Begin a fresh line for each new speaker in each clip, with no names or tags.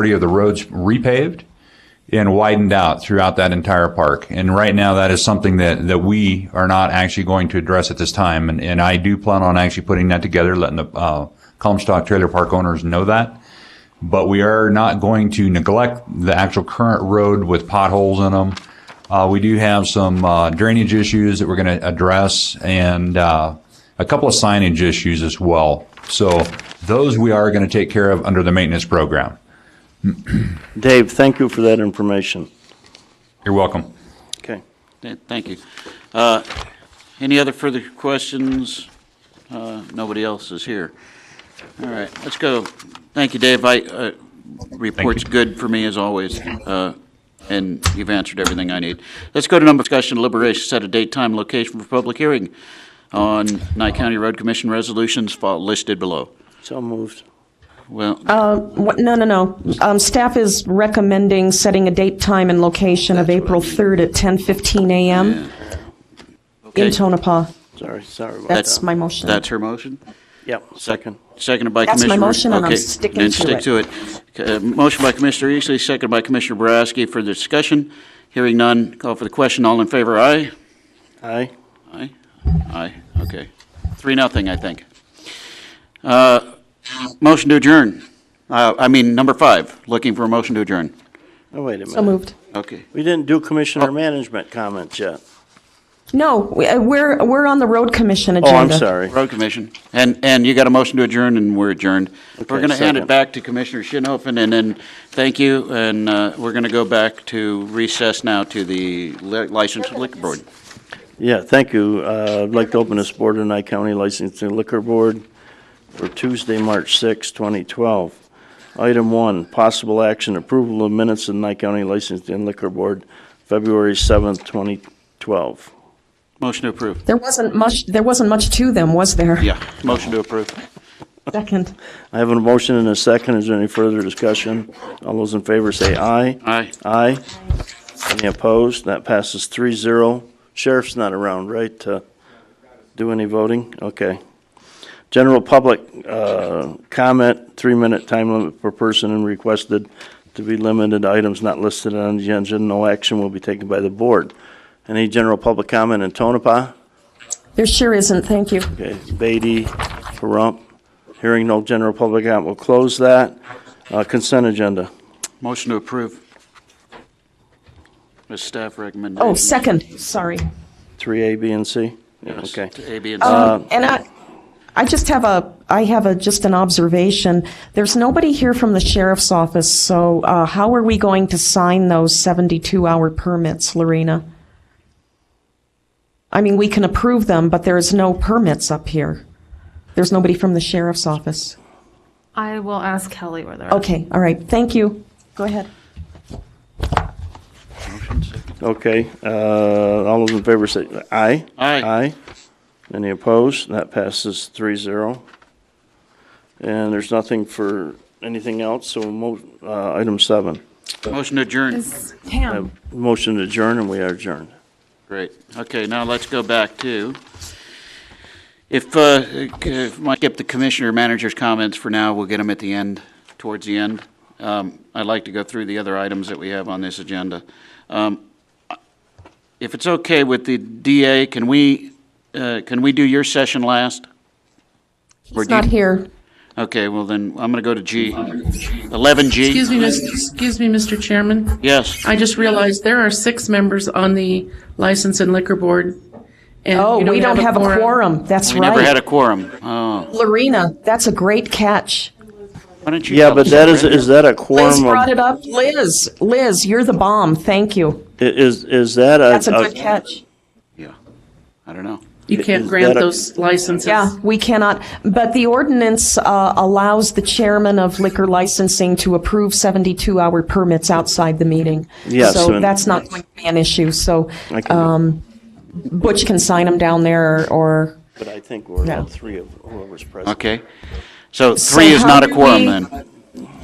majority of the roads repaved and widened out throughout that entire park. And right now, that is something that, that we are not actually going to address at this time. And, and I do plan on actually putting that together, letting the, uh, Comstock Trailer Park owners know that. But we are not going to neglect the actual current road with potholes in them. Uh, we do have some, uh, drainage issues that we're going to address and, uh, a couple of signage issues as well. So those we are going to take care of under the maintenance program.
Dave, thank you for that information.
You're welcome.
Okay.
Th- Thank you. Uh, Any other further questions? Uh, Nobody else is here. All right, let's go. Thank you, Dave. I, uh, report's good for me as always, uh, and you've answered everything I need. Let's go to number discussion deliberation, set a date, time, location for public hearing on Nye County Road Commission resolutions fol- listed below.
So moved.
Well,
Um, What- No, no, no. Um, Staff is recommending setting a date, time, and location of April 3rd at 10:15 a.m. in
okay,
Tonopah.
Sorry, sorry about that.
That's my motion.
that's her motion?
Yep, second.
Seconded by
That's
Commissioner.
my motion, and I'm
okay,
sticking
then
to it.
stick to it. Uh, Motion by Commissioner Eastley, seconded by Commissioner Boraski for discussion. Hearing none, call for the question. All in favor, aye?
Aye.
Aye? Aye, okay. Three, nothing, I think. Uh, Motion to adjourn. Uh, I mean, number five, looking for a motion to adjourn.
Oh, wait a minute.
So moved. Oh.
Okay.
We didn't do commissioner management comments yet.
No, we- uh, we're, we're on the Road Commission
Oh,
agenda.
I'm sorry.
Road Commission. And, and you got a motion to adjourn, and we're adjourned. We're
Okay,
going to hand it
second.
back to Commissioner Shinhopin, and then, thank you, and uh, we're going to go back to recess now to the li- licensed liquor board.
Yeah, thank you. Uh, I'd like to open this board of Nye County Licensing Liquor Board for Tuesday, March 6, 2012. Item one, possible action, approval of minutes of Nye County Licensing Liquor Board, February 7, 2012.
Motion to approve.
There wasn't much, there wasn't much to them, was there?
Yeah, motion to approve.
Second.
I have a motion and a second. Is there any further discussion? All those in favor say aye.
Aye.
Aye. Any opposed? That passes three zero. Sheriff's not around, right, to do any voting? Okay. General public, uh, comment, three-minute time limit per person and requested to be limited to items not listed on the agenda. No action will be taken by the board. Any general public comment in Tonopah?
There sure isn't, thank you.
Okay, Beatty, Pahrump. Hearing no general public comment, we'll close that. Uh, Consent agenda.
Motion to approve. The staff recommendation.
Oh, second, sorry.
3A, B, and C? Yeah,
Yes,
Okay.
to A, B, and C.
And I, I just have a, I have a, just an observation. There's nobody here from the sheriff's office, so uh, how are we going to sign those 72-hour permits, Lorena? I mean, we can approve them, but there's no permits up here. There's nobody from the sheriff's office.
I will ask Kelly where they're at.
Okay, all right, thank you. Go ahead.
Okay, uh, all those in favor say aye.
Aye.
Aye. Any opposed? That passes three zero. And there's nothing for anything else, so mo, uh, item seven.
Motion to adjourn.
Is Pam,
Motion to adjourn, and we are adjourned.
Great. Okay, now let's go back to, if, uh, if I skip the commissioner manager's comments for now, we'll get them at the end, towards the end. Um, I'd like to go through the other items that we have on this agenda. Um, If it's okay with the DA, can we, uh, can we do your session last? Or
He's
do you-
not here.
Okay, well then, I'm going to go to G. 11G?
Excuse me, Mr. excuse me, Mr. Chairman.
Yes.
I just realized there are six members on the License and Liquor Board. and
Oh,
you
we don't have a quorum, that's
We never had
right.
a quorum. Oh,
Lorena, that's a great catch.
why don't you?
Yeah,
tell
but
us,
that is,
Brenda?
is that a
Liz
quorum? of-
brought it up. Liz, Liz, you're the bomb, thank you.
i- Is, is that a?
That's a good catch.
Yeah, I don't know.
You can't
Is
grant
that a-
those licenses.
Yeah, we cannot, but the ordinance uh, allows the chairman of liquor licensing to approve 72-hour permits outside the meeting.
Yes,
So
and-
that's not going to be an issue, so
I can do it.
um, Butch can sign them down there, or,
But I think we're
Yeah.
all three of whoever's present.
Okay. So
So
three is
how
not a
do
quorum
we-
then,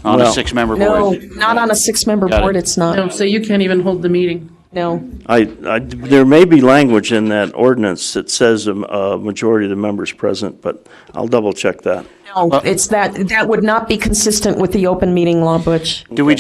on a
Well-
six-member
no,
board?
not on a six-member
Got it.
board, it's
No,
not,
So you can't even hold the meeting.
no.
I, I, there may be language in that ordinance that says a, a majority of the members present, but I'll double check that.
No, it's that, that would not be consistent with the open meeting law, Butch.
Do we